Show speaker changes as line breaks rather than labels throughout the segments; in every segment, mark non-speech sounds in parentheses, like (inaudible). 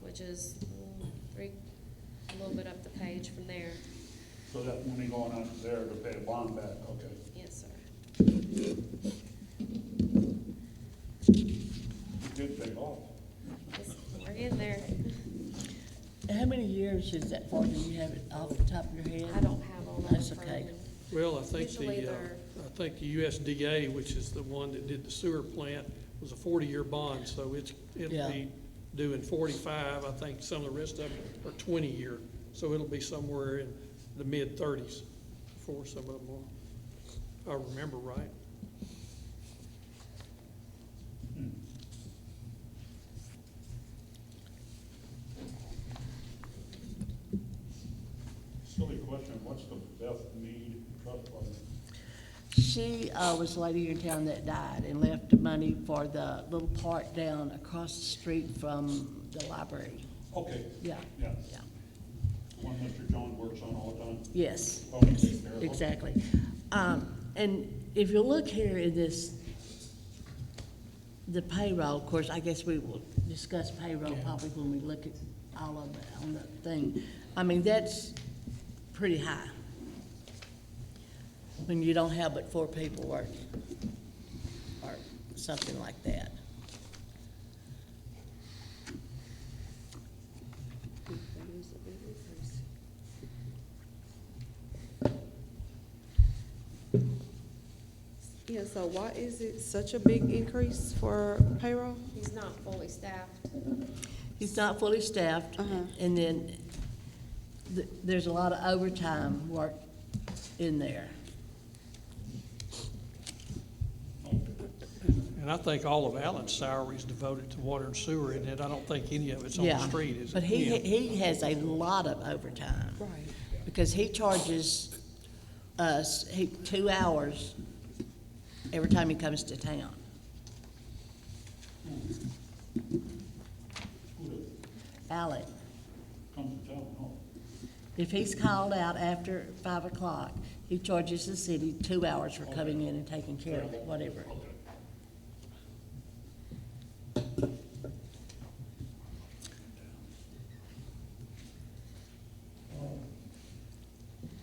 which is mm, three, a little bit up the page from there.
So that money going out of there to pay a bond back, okay.
Yes, sir.
It did pay off.
It's- We're getting there.
How many years is that for? Do you have it off the top of your head?
I don't have all that.
That's
in front
okay.
of me.
Well, I think
Usually
the, uh,
they're-
I think the USDA, which is the one that did the sewer plant, was a forty-year bond, so it's, it'll
Yeah.
be due in forty-five. I think some of the rest of them are twenty-year, so it'll be somewhere in the mid-thirties before some of them are. I remember right.
Silly question, what's the Beth Mead trust fund?
She uh, was the lady in town that died and left the money for the little part down across the street from the library.
Okay,
Yeah,
yeah,
yeah,
one Mr. John works on all the time.
yes.
Probably take care of it.
Exactly. Um, and if you look here in this, the payroll, of course, I guess we will discuss payroll probably when we look at all of it on the thing. I mean, that's pretty high. When you don't have but four people working, or something like that.
Yeah, so why is it such a big increase for payroll?
He's not fully staffed.
He's not fully staffed,
Uh-huh.
and then th- there's a lot of overtime work in there.
And I think all of Allen's salary is devoted to water and sewer, and I don't think any of it's on the
Yeah,
street, is it?
But he, he has a lot of overtime.
Right.
Because he charges us, he, two hours every time he comes to town.
Who does,
Alec,
comes to town, no?
if he's called out after five o'clock, he charges the city two hours for coming in and taking care of it, whatever.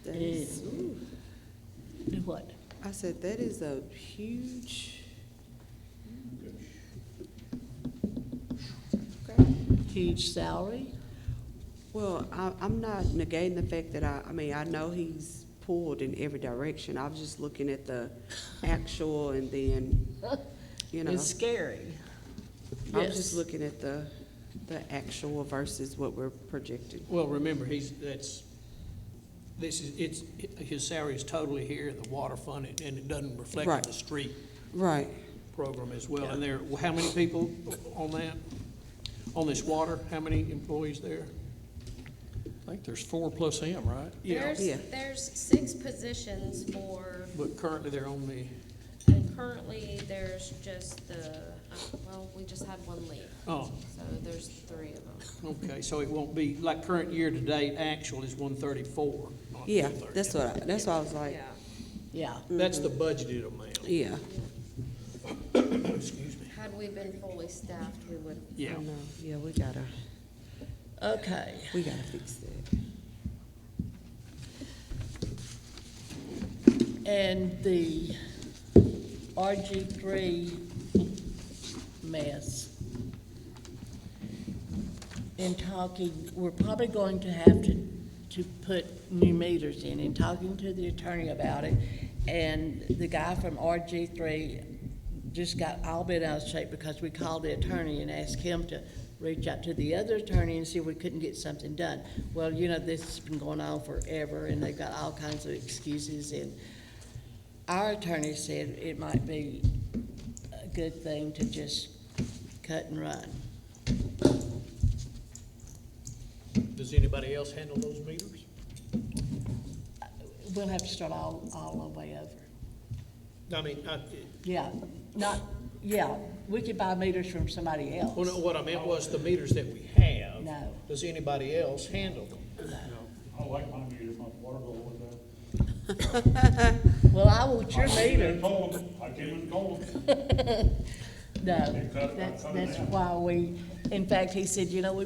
That is, ooh.
Do what?
I said, that is a huge. Okay.
Huge salary?
Well, I, I'm not negating the fact that I, I mean, I know he's pulled in every direction. I was just looking at the actual and then, (laughs) you know.
It's scary.
I was just
Yes.
looking at the, the actual versus what we're projecting.
Well, remember, he's, that's, this is, it's, his salary is totally here, the water fund, and it doesn't reflect on
Right.
the street
Right.
program as well. And there, how many people on that, on this water, how many employees there?
I think there's four plus him, right?
Yeah,
Yeah.
There's, there's six positions for,
but currently they're only,
and currently there's just the, uh, well, we just had one leave.
oh,
So there's three of them.
okay, so it won't be, like, current year-to-date actual is one thirty-four, not
Yeah,
230.
that's what, I that's what I was like,
Yeah.
Yeah.
That's the budgeted amount,
yeah.
excuse me.
Had we been fully staffed, we would,
Yeah.
I know. Yeah, we gotta,
Okay.
we gotta fix that.
And the RG three mess. In talking, we're probably going to have to, to put new meters in, in talking to the attorney about it. And the guy from RG three just got all bent out of shape because we called the attorney and asked him to reach out to the other attorney and see if we couldn't get something done. Well, you know, this has been going on forever and they've got all kinds of excuses and our attorney said it might be a good thing to just cut and run.
Does anybody else handle those meters?
We'll have to start all, all the way over.
I mean, I,
Yeah, not, yeah, we could buy meters from somebody else.
well, oh, no, what I meant was the meters that we have.
No.
Does anybody else handle them?
I like my meter, my water bill was that.
Well, I want your
I came in
meter.
cold. I came in cold.
No, that's, that's why we, in fact, he said, you know, we